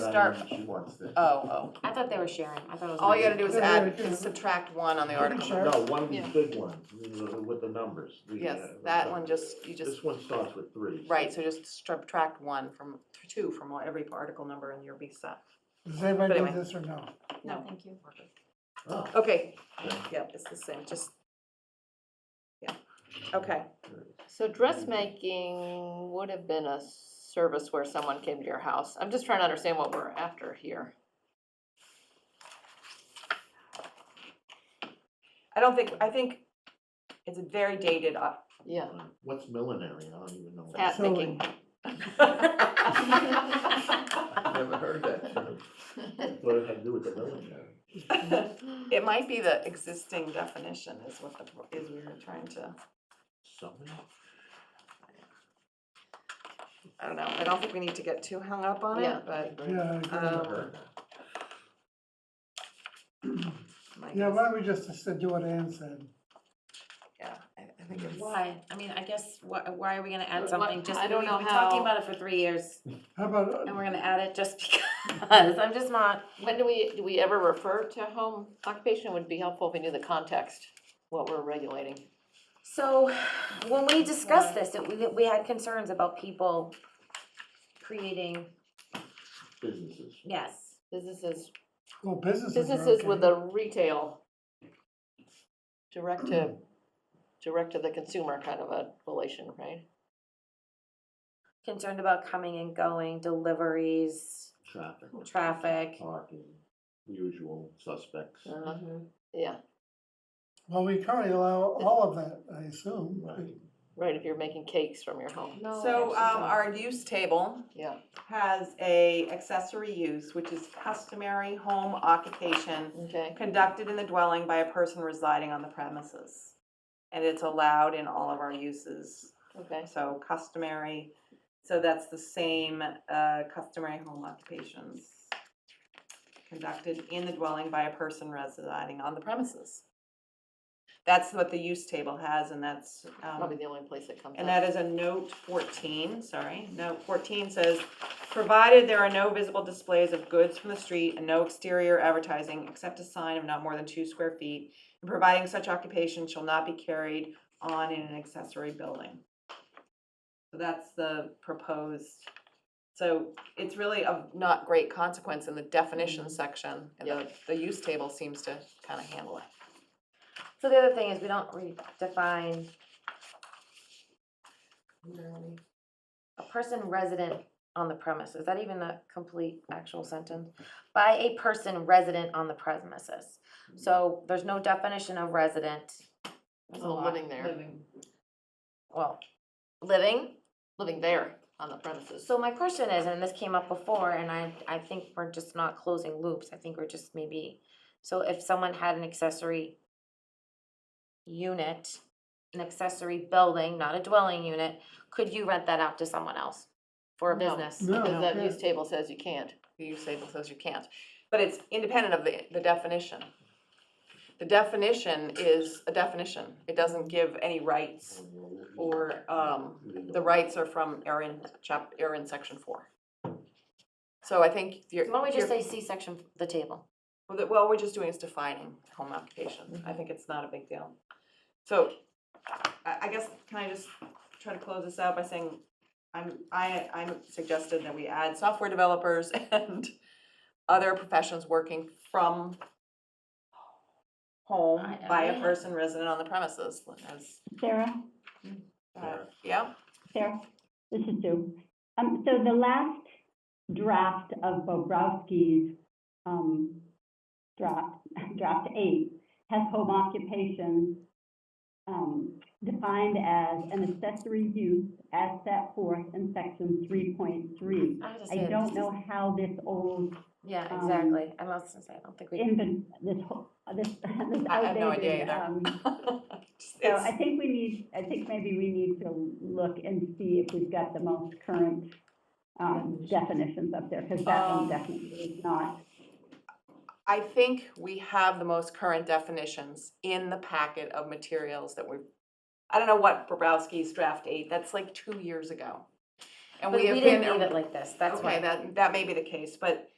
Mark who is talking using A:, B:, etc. A: start,
B: Diane, she wants this.
A: oh, oh.
C: I thought they were sharing, I thought it was.
A: All you gotta do is
D: Yeah,
A: add,
D: yeah.
A: subtract one on the
D: Yeah, sure.
A: article.
B: No, one of
D: Yeah.
B: these big ones, the- with the numbers. the,
A: Yes,
B: uh,
A: that one just, you just,
B: This one starts with three. so-
A: right, so just subtract one from, two from every article number and you'll be set.
D: Does
A: But
D: anybody
A: anyway.
D: do this or no?
C: No, thank you.
B: Oh,
A: Okay,
B: Yeah.
A: yep, it's the same, just, yeah, okay.
E: So dressmaking would have been a service where someone came to your house. I'm just trying to understand what we're after here.
A: I don't think, I think it's very dated. uh,
E: Yeah.
B: What's millinery? I don't even know.
E: Hat
D: So-
E: picking.
B: I've never heard that term. What does that do with the millinery?
A: It might be the existing definition is what the, is we were trying to,
B: Something?
A: I don't know, I don't think we need to get too hung up on
E: Yeah.
A: it, but.
D: Yeah, I
A: Um,
D: agree.
B: Never heard that.
A: my
D: yeah,
A: guess-
D: why don't we just uh, do what Ann said?
A: Yeah, I I think it's.
C: Why? I mean, I guess, why, why are we gonna add
E: What-
C: something just,
E: I
C: we've
E: don't
C: been
E: know
C: talking
E: how-
C: about it for three years,
D: How about, uh,
C: and we're gonna add it just because, I'm just not,
E: When do we, do we ever refer to home occupation? It Would be helpful if we knew the context, what we're regulating.
C: So, when we discussed this, it- we, we had concerns about people creating,
B: Businesses.
C: yes.
E: Businesses,
D: well, businesses are
E: businesses with
D: okay.
E: a retail, direct to, direct to the consumer kind of a relation, right?
C: Concerned about coming and going, deliveries,
B: Traffic,
C: traffic.
B: parking, usual suspects.
A: Uh,
E: Uh-huh. Yeah,
D: Well, we currently allow all of that, I assume.
B: Right.
E: right, if you're making cakes from your home,
A: So, um, our use table
E: yeah.
A: has a accessory use, which is customary home occupation
E: Okay,
A: conducted in the dwelling by a person residing on the premises. And it's allowed in all of our uses,
E: okay.
A: so customary, so that's the same, uh, customary home occupations. Conducted in the dwelling by a person residing on the premises. That's what the use table has, and that's, um.
E: Probably the only place it comes up.
A: And that is a note fourteen, sorry, note fourteen says, provided there are no visible displays of goods from the street and no exterior advertising except a sign of not more than two square feet, and providing such occupation shall not be carried on in an accessory building. So that's the proposed, so it's really of not great consequence in the
E: Mm-hmm.
A: definition section, and the, the use table seems to kind of handle it.
C: So the other thing is, we don't redefine a person resident on the premise, is that even a complete actual sentence? By a person resident on the premises, so there's no definition of resident,
E: There's no living there,
C: well, living.
E: living there on the premises.
C: So my question is, and this came up before, and I, I think we're just not closing loops, I think we're just maybe, so if someone had an accessory unit, an accessory building, not a dwelling unit, could you rent that out to someone else for a
E: No.
C: business?
D: No,
E: Because that
D: yeah.
E: use table says you can't.
A: the use table says you can't, but it's independent of the, the definition. The definition is a definition, it doesn't give any rights, or, um, the rights are from Erin, chap, Erin section four. So I think you're.
C: So Why don't we just
A: you're-
C: say C section, f- the table?
A: well, the- Well, we're just doing is defining home occupation, I think it's not a big deal. So, I, I guess, can I just try to close this out by saying, I'm, I, I'm suggested that we add software developers and other professions working from home
C: I-
A: by
C: I-
A: a person resident on the premises, as,
F: Sarah,
A: uh, yeah,
F: Sarah, this is Sue. Um, so the last draft of Bobrowski's, um, draft, draft eight has home occupation, um, defined as an accessory use as set forth in section three point three.
C: I
F: I don't know how this old
C: Yeah,
F: um,
C: exactly, I'm not, I don't think we,
F: invent, this, ho- this, this
A: I have no idea
F: outdated,
A: either.
F: um, So I
A: It's-
F: think we need, I think maybe we need to look and see if we've got the most current um, definitions up there, because that
A: Um,
F: one definitely is not.
A: I think we have the most current definitions in the packet of materials that we, I don't know what Bobrowski's draft eight, that's like two years ago. And
C: but
A: we
C: we
A: have
C: didn't
A: been,
C: leave it like this, that's why.
A: okay, that, that may be the case, but